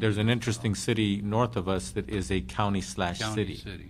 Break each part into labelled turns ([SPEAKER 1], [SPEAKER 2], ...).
[SPEAKER 1] there's an interesting city north of us that is a county slash
[SPEAKER 2] County,
[SPEAKER 1] city.
[SPEAKER 2] city.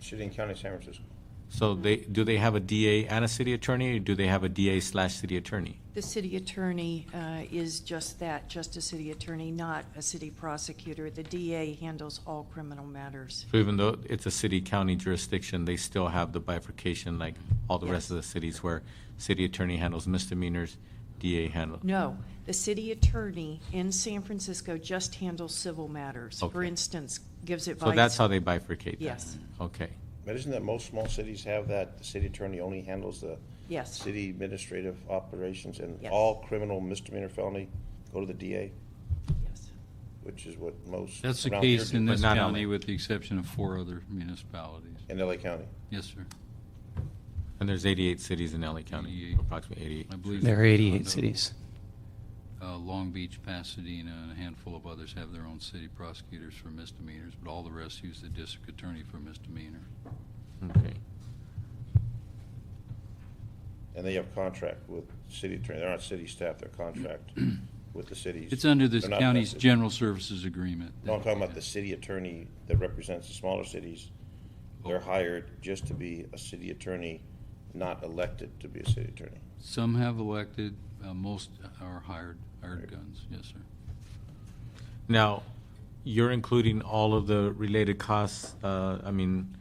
[SPEAKER 3] City and County San Francisco.
[SPEAKER 1] So they, do they have a DA and a city attorney, or do they have a DA slash city attorney?
[SPEAKER 4] The city attorney uh, is just that, just a city attorney, not a city prosecutor. The DA handles all criminal matters.
[SPEAKER 1] So even though it's a city-county jurisdiction, they still have the bifurcation like all the rest of the cities where city attorney handles misdemeanors, DA handles.
[SPEAKER 4] No, the city attorney in San Francisco just handles civil matters. For
[SPEAKER 1] Okay.
[SPEAKER 4] instance, gives advice.
[SPEAKER 1] So that's how they bifurcate that?
[SPEAKER 4] Yes.
[SPEAKER 1] Okay.
[SPEAKER 3] But isn't that most small cities have that, the city attorney only handles the
[SPEAKER 4] Yes,
[SPEAKER 3] city administrative operations and
[SPEAKER 4] Yes.
[SPEAKER 3] all criminal misdemeanor felony go to the DA,
[SPEAKER 4] yes.
[SPEAKER 3] which is what most.
[SPEAKER 2] That's the
[SPEAKER 3] around here
[SPEAKER 2] case
[SPEAKER 3] do.
[SPEAKER 2] in
[SPEAKER 1] But
[SPEAKER 2] this
[SPEAKER 1] not
[SPEAKER 2] county
[SPEAKER 1] LA.
[SPEAKER 2] with the exception of four other municipalities.
[SPEAKER 3] In LA County.
[SPEAKER 2] Yes, sir.
[SPEAKER 1] And there's 88 cities in LA County,
[SPEAKER 2] 88.
[SPEAKER 1] approximately 88.
[SPEAKER 2] I believe.
[SPEAKER 5] There are
[SPEAKER 2] Redondo,
[SPEAKER 5] 88 cities.
[SPEAKER 2] uh, Long Beach, Pasadena, and a handful of others have their own city prosecutors for misdemeanors, but all the rest use the district attorney for misdemeanor.
[SPEAKER 1] Okay.
[SPEAKER 3] And they have contract with city attorney. They're not city staff, they're contract with the cities.
[SPEAKER 2] It's under this
[SPEAKER 3] They're not
[SPEAKER 2] county's
[SPEAKER 3] vested.
[SPEAKER 2] general services agreement.
[SPEAKER 3] No, I'm talking about the city attorney that represents the smaller cities. They're hired just to be a city attorney, not elected to be a city attorney.
[SPEAKER 2] Some have elected, uh, most are hired, hired guns, yes, sir.
[SPEAKER 1] Now, you're including all of the related costs, uh, I mean,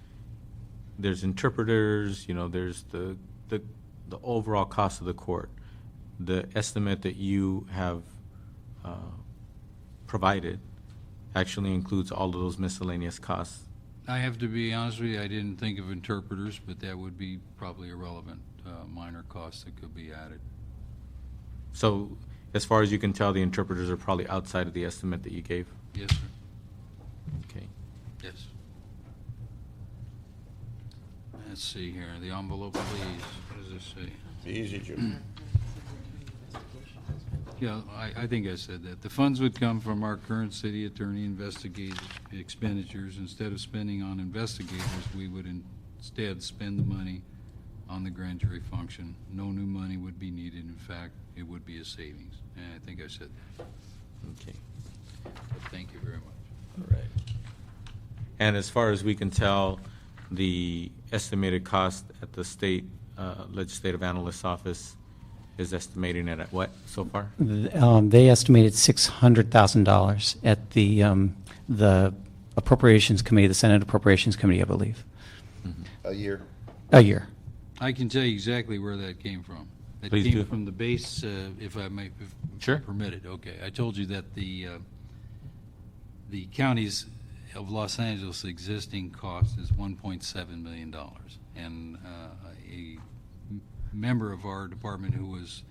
[SPEAKER 1] there's interpreters, you know, there's the, the, the overall cost of the court. The estimate that you have, uh, provided actually includes all of those miscellaneous costs.
[SPEAKER 2] I have to be honest with you, I didn't think of interpreters, but that would be probably a relevant uh, minor cost that could be added.
[SPEAKER 1] So as far as you can tell, the interpreters are probably outside of the estimate that you gave.
[SPEAKER 2] Yes, sir,
[SPEAKER 1] Okay.
[SPEAKER 2] yes. Let's see here, the envelope, please, what does this say?
[SPEAKER 3] Be easy,
[SPEAKER 4] Mm.
[SPEAKER 3] Jim.
[SPEAKER 2] Yeah, I, I think I said that. The funds would come from our current city attorney investigative expenditures. Instead of spending on investigators, we would instead spend the money on the grand jury function. No new money would be needed. In fact, it would be a savings. And I think I said that.
[SPEAKER 1] Okay.
[SPEAKER 2] But thank you very much.
[SPEAKER 1] And as far as we can tell, the estimated cost at the state uh, legislative analyst's office is estimating it at what so far?
[SPEAKER 5] Th- um, They estimated $600,000 at the, um, the Appropriations Committee, the Senate Appropriations Committee, I believe,
[SPEAKER 3] A year.
[SPEAKER 5] a year.
[SPEAKER 2] I can tell you exactly where that came from. That
[SPEAKER 1] Please
[SPEAKER 2] came
[SPEAKER 1] do.
[SPEAKER 2] from the base, uh, if I may, if
[SPEAKER 1] Sure.
[SPEAKER 2] permitted. Okay, I told you that the uh, the counties of Los Angeles' existing cost is 1.7 million dollars, and uh, a m- member of our department who was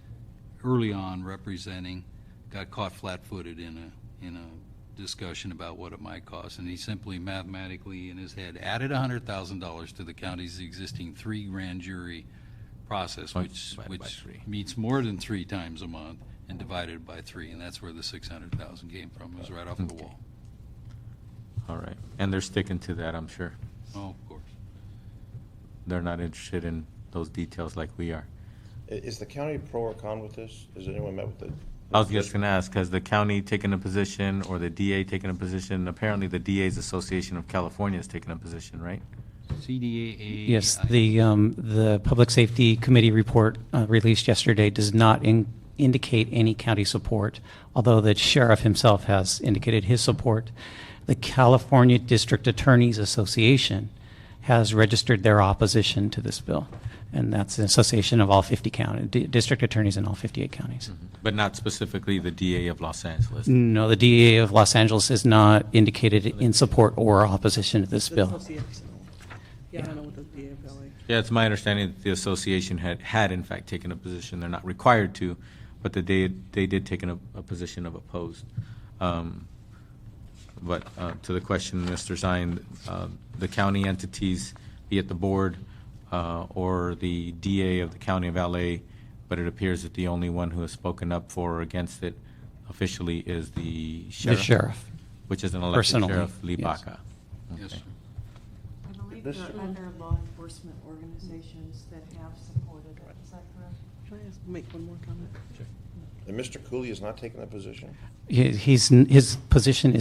[SPEAKER 2] early on representing got caught flat-footed in a in a discussion about what it might cost, and he simply mathematically in his head added hundred thousand dollars to the county's existing three grand jury process,
[SPEAKER 1] Right,
[SPEAKER 2] which
[SPEAKER 1] divided by
[SPEAKER 2] which
[SPEAKER 1] three.
[SPEAKER 2] meets more than three times a month and divided by three, and that's where the six hundred thousand came from. It was right off the
[SPEAKER 1] Okay.
[SPEAKER 2] wall.
[SPEAKER 1] All right. And they're sticking to that, I'm sure.
[SPEAKER 2] Oh, of course.
[SPEAKER 1] They're not interested in those details like we are.
[SPEAKER 3] I- Is the county pro or con with this? Has anyone met with the?
[SPEAKER 1] I was just going to ask, has the county taken a position or the DA taken a position? Apparently, the DA's Association of California has taken a position, right?
[SPEAKER 2] CDAA.
[SPEAKER 5] Yes, the, um, the Public Safety Committee report uh, released yesterday does not in- indicate any county support, although the sheriff himself has indicated his support. The California District Attorneys Association has registered their opposition to this bill, and that's an association of all 50 county, di- district attorneys in all 58 counties.
[SPEAKER 1] Mm-hmm. But not specifically the DA of Los Angeles.
[SPEAKER 5] No, the DEA of Los Angeles has not indicated in support or opposition to this bill.
[SPEAKER 6] That's OCX. Yeah, I don't know what the uh, DFLA.
[SPEAKER 1] Yeah, it's my understanding that the association had, had in fact taken a position, they're not required to, but that they, they did take a, a position of opposed. Um, But uh, to the question, Mr. Zine, uh, the county entities, be it the board uh, or the DA of the County of LA, but it appears that the only one who has spoken up for or against it officially is the
[SPEAKER 5] The
[SPEAKER 1] sheriff.
[SPEAKER 5] sheriff.
[SPEAKER 1] Which is an elected
[SPEAKER 5] Personally,
[SPEAKER 1] sheriff, Lee
[SPEAKER 5] yes.
[SPEAKER 1] Baca.
[SPEAKER 2] Yes, sir.
[SPEAKER 4] I believe
[SPEAKER 3] This-
[SPEAKER 4] there are other law enforcement organizations that have supported it, is that correct?
[SPEAKER 6] Can I ask, make one more comment?
[SPEAKER 3] And Mr. Cooley has not taken that position?
[SPEAKER 5] He- He's, his position